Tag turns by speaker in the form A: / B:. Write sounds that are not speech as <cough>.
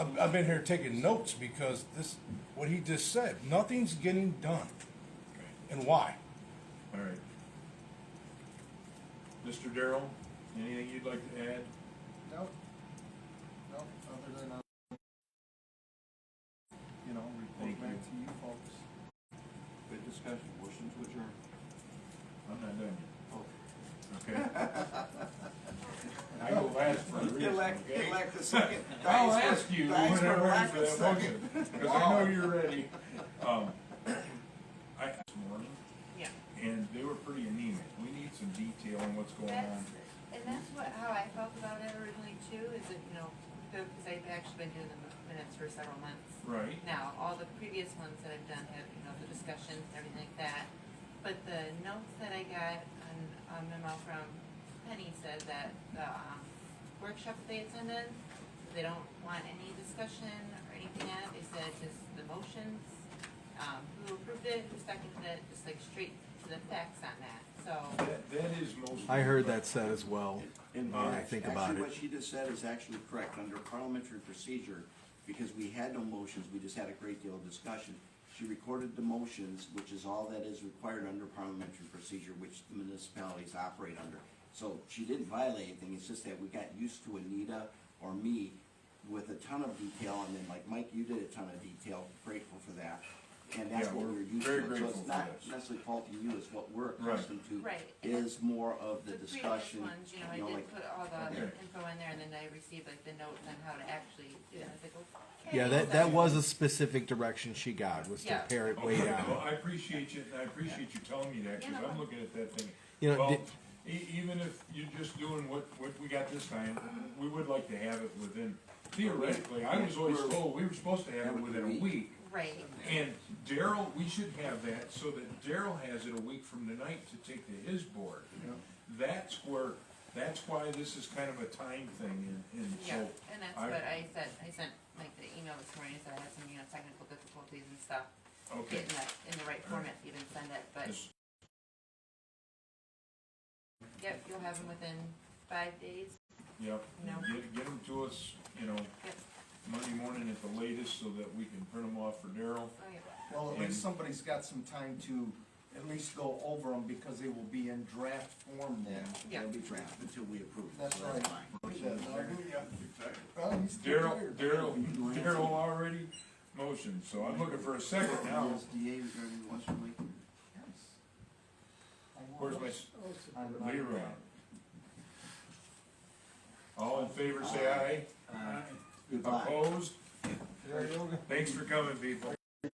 A: I've, I've been here taking notes because this, what he just said, nothing's getting done. And why?
B: All right. Mr. Darrell, anything you'd like to add?
C: Nope. Nope, other than, uh, you know,
B: Thank
C: report back to you folks.
D: Good discussion, motion to adjourn.
B: I'm not done yet. Okay. I go last for a reason,
D: Elect,
B: okay?
D: elect the second.
B: I'll ask you
D: Thanks for
B: whenever I'm
D: lack of
B: for that
D: second.
B: motion, because I know
D: <laughs>
B: you're ready. Um, I, this morning,
E: Yeah.
B: and they were pretty anemic. We need some detail on what's going
E: That's,
B: on.
E: and that's what, how I felt about it originally too, is that, you know, because I've actually been doing the minutes for several months.
B: Right,
E: Now, all the previous ones that I've done have, you know, the discussions, everything like that. But the notes that I got on a memo from Penny said that the um, workshop that they attended, they don't want any discussion or anything else. They said just the motions, um, who approved it, who seconded it, just like straight to the facts on that. So,
B: that, that is most.
F: I heard that said as well.
D: And
F: All right,
D: act-
F: think about it.
D: Actually, what she just said is actually correct, under parliamentary procedure, because we had no motions, we just had a great deal of discussion. She recorded the motions, which is all that is required under parliamentary procedure, which the municipalities operate under. So she didn't violate anything, it's just that we got used to Anita or me with a ton of detail, and then like Mike, you did a ton of detail, grateful for that. And that's
B: Yeah,
D: what
B: we're
D: we're used
B: very
D: to, so
B: grateful
D: it's
B: for
D: not
B: this.
D: necessarily faulting you, it's what we're
B: Right.
D: accustomed to.
E: Right.
D: Is more of the
E: the previous
D: discussion.
E: ones, you know, I
D: you know,
E: did
D: like-
E: put all the
B: Okay.
E: info in there and then I received like the notes on how to actually, do it. I was like, okay.
F: Yeah, that,
E: so-
F: that was a specific direction she got, was to
E: Yeah.
F: pare it way
B: Okay, Well,
F: down.
B: Oh, I appreciate you, I appreciate you telling me that, cause
E: Yeah.
B: I'm looking at that thing.
F: You know,
B: Well,
F: did-
B: e- even if you're just doing what, what we got this time, we would like to have it within, theoretically, I was always told, we were supposed to have it within a week.
E: Right.
B: And Daryl, we should have that so that Daryl has it a week from tonight to take to his board. That's where, that's why this is kind of a time thing and, and so.
E: Yeah, and that's
B: I-
E: what I said, I sent like the email this morning, so I had some, you know, technical difficulties and stuff.
B: Okay.
E: Getting that in the right format, to even send it, but,
B: This-
E: yep, you'll have them within five days,
B: Yep,
E: No.
B: get, get them to us, you know,
E: yep,
B: Monday morning at the latest so that we can print them off for Daryl.
E: oh, yep.
C: Well, at least
B: And-
C: somebody's got some time to at least go over them because they will be in draft form then.
E: Yeah.
D: It'll be drafted until we approve it.
C: That's
D: so
C: right.
D: fine.
C: Well, he's still
B: Daryl,
C: here.
B: Daryl, Daryl already motioned, so I'm looking for a second now.
D: USDA regarding Western Lake.
C: Yes. Oh, I will.
B: Where's my,
C: I'm not-
B: Leroy? All in favor, say aye.
D: Goodbye.
B: Opposed? Thanks for coming, people.